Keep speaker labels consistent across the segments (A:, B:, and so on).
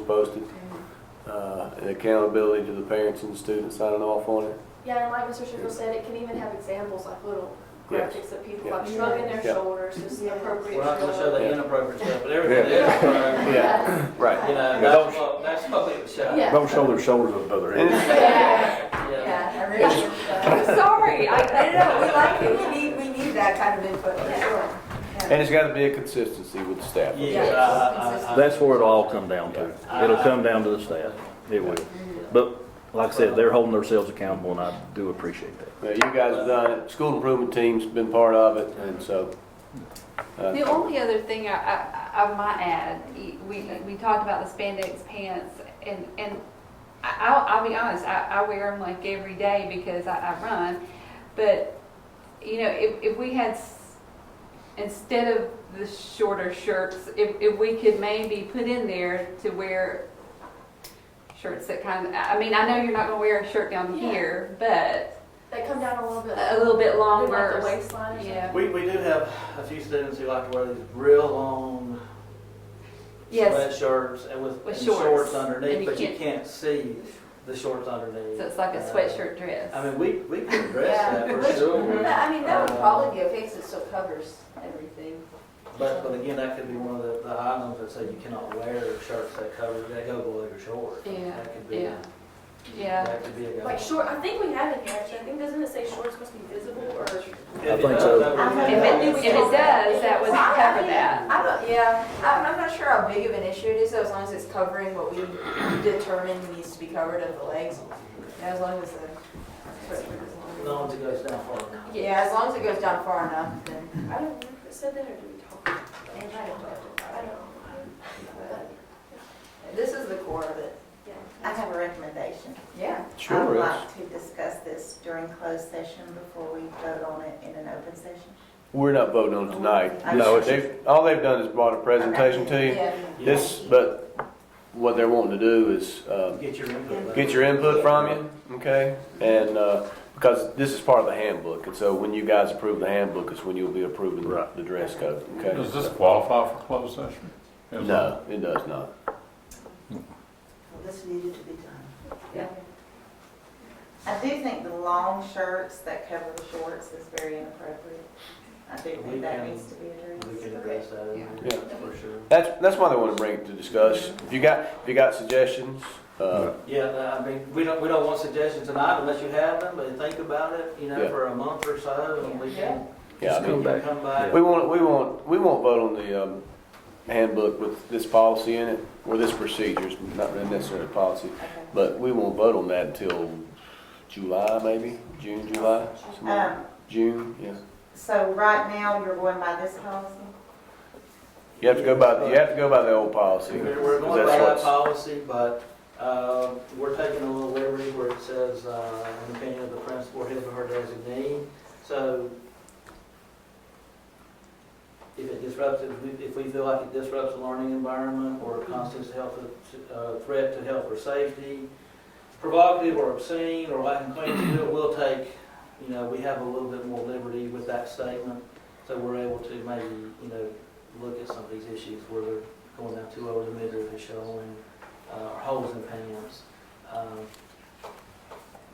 A: posted, uh, and accountability to the parents and the students signing off on it.
B: Yeah, and like Mr. Schiffel said, it can even have examples like little
A: Yes.
B: graphics of people
A: Yeah.
B: like shrugging their
A: Yeah.
B: shoulders, just
C: Yeah.
B: appropriate.
D: We're not gonna show
B: shrug.
D: the
A: Yeah.
D: inappropriate stuff, but everything
A: Yeah.
D: else, uh,
A: Yeah. Right.
D: you know, that's what, that's what we would show.
B: Yeah.
E: Don't show their shoulders above their head.
B: Yeah,
D: Yeah.
B: yeah.
C: I'm sorry, I, I don't know, we like it, we need, we need that kind of input, for sure.
A: And it's gotta be a consistency with the staff.
D: Yeah,
C: Yeah.
D: I- I- I-
E: That's where it'll all come down to. It'll come down to the staff. It will. But like I said, they're holding themselves accountable and I do appreciate that.
A: Now, you guys have done it, school improvement team's been part of it, and so. uh,
F: The only other thing I, I, I might add, e- we, we talked about the spandex pants and, and I, I'll, I'll be honest, I, I wear them like every day because I, I run. But, you know, if, if we had, s- instead of the shorter shirts, if, if we could maybe put in there to wear shirts that kind of, I I mean, I know you're not gonna wear a shirt down
B: Yeah.
F: here, but
B: They come down a little bit.
F: a little bit
B: Like
F: longer.
B: the waistline or something.
F: Yeah.
D: We, we do have a few students who like to wear these real long
F: Yes.
D: sweatshirts and with
F: With
D: and
F: shorts.
D: shorts
F: And
D: underneath,
F: you
D: but you
F: can't-
D: can't see the shorts underneath.
F: So it's like a
D: Uh,
F: sweatshirt dress.
D: I mean, we, we can
C: Yeah.
D: address that for
C: But,
D: sure,
C: I mean, that
A: Uh,
C: would probably be okay, 'cause it still covers everything.
D: but, but again, that could be one of the, the items that say you cannot wear shirts that cover, that go below your shorts.
F: Yeah,
D: That could be,
F: yeah, yeah.
D: that could be a. go-
B: Like short, I think we have it here actually. I think, doesn't it say shorts must be visible or?
D: If it
E: think
D: does,
E: so.
D: that would be-
F: If it, if it does, that would cover that.
C: I don't, yeah, I'm, I'm not sure how big of an issue it is, though, as long as it's covering what we determine needs to be covered of the legs. Yeah, As long as the.
D: No one's goes down far enough.
C: Yeah, as long as it goes down far enough, then.
B: I don't remember if it said that or did we talk? about it? I don't know. I don't know.
C: but uh, This is the core of it.
B: Yeah.
G: I have a recommendation.
C: Yeah.
A: Sure
G: I would
A: is.
G: like to discuss this during closed session before we vote on it in an open session.
A: We're not voting on it tonight.
G: No, it's-
A: They've- All they've done is brought a presentation to you.
C: Yeah.
A: This, but what they're wanting to do is, um,
D: Get your input.
A: get your input from you, okay? And, uh, because this is part of the handbook, and so when you guys approve the handbook is when you'll be approving the-
E: Right.
A: the dress code, okay?
H: Does this qualify for closed session? Is-
A: No, it does not.
G: Well, This needed to be done.
C: Yeah.
G: I do think the long shirts that cover the shorts is very inappropriate. I do
D: We
G: think that
D: can-
G: needs to be
D: We
G: addressed.
D: can address that in
A: Yeah.
D: there, for sure.
A: That's, that's why they want to bring it to discuss. If you got, if you got suggestions, uh,
D: Yeah, no, I mean, we don't, we don't want suggestions tonight unless you have them, but think about it, you know,
A: Yeah.
D: for a month or so, and we can,
A: yeah, I
E: Just
D: we
A: mean,
E: come
D: can
E: back.
D: come back.
A: we won't, we won't, we won't vote on the, um, handbook with this policy in it, or this procedure, it's not really necessarily a policy,
G: Okay.
A: but we won't vote on that until July, maybe, June, July, somewhere.
G: Um,
A: June, yeah.
G: So right now, you're going by this policy?
A: You have to go by, you have to go by the old policy.
D: We're we're
A: 'cause
D: going by
A: that's
D: that
A: what's-
D: policy, but, uh, we're taking a little liberty where it says, uh, in the opinion of the principal, or his or her designee, so if it disrupts, if we- if we feel like it disrupts the learning environment or constitutes a health, uh, threat to health or safety, provocative or obscene or lacking clean skill, we'll take, you know, we have a little bit more liberty with that statement, so we're able to maybe, you know, look at some of these issues where they're going down too over the middle and showing, uh, or holes in pants. Um,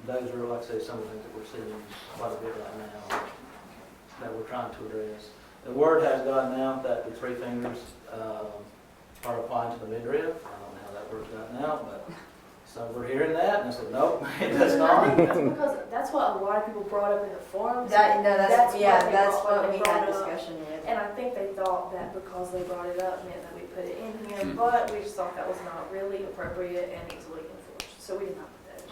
D: Those are, like I say, some of the things that we're seeing quite a bit right now that we're trying to address. The word has gotten out that the three fingers, um, are applying to the midriff. I don't know how that word's gotten out, but some were hearing that and I said, nope, it does
B: I
D: not.
B: think that's because, that's what a lot of people brought up in the forums.
C: That, no, that's,
B: what
C: yeah,
B: they
C: that's
B: brought-
C: what
B: they
C: we
B: brought
C: had
B: up.
C: discussion with.
B: And I think they thought that because they brought it up meant that we put it in here, but we just thought that was not really appropriate and easily enforced, so we did not put that in.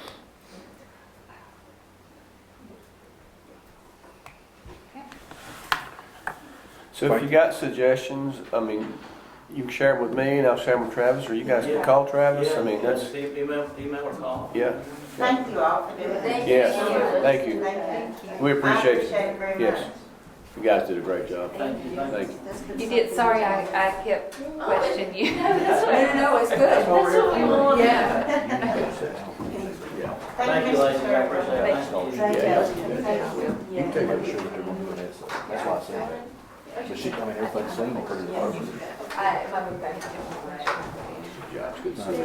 A: So if you got suggestions, I mean, you can share them with me and I'll share them with Travis, or you guys can
D: Yeah.
A: call Travis. I mean,
D: Yeah,
A: that's,
D: Email, email or call.
A: Yeah.
G: Thank you all for doing
C: Thank
G: it.
C: you.
A: Yes, thank you.
G: Thank you.
A: We appreciate it.
G: I appreciate it very
A: Yes.
G: much.
A: you guys did a great job.
D: Thank you, thank you.
A: Thank you.
F: You did, sorry, I, I kept questioning you.
C: Oh, No, no, no, it's good.
B: That's what we wanted.
C: Yeah.
A: Yeah.
D: Thank you, ladies, I appreciate it. Thank you.
G: Thank
A: Yeah,
G: you.
E: You can take her to sugar too, when that's, that's why I said that. But she, I mean, everything's seen pretty hard.
C: I, my book bag.
A: Yeah, it's good to see you.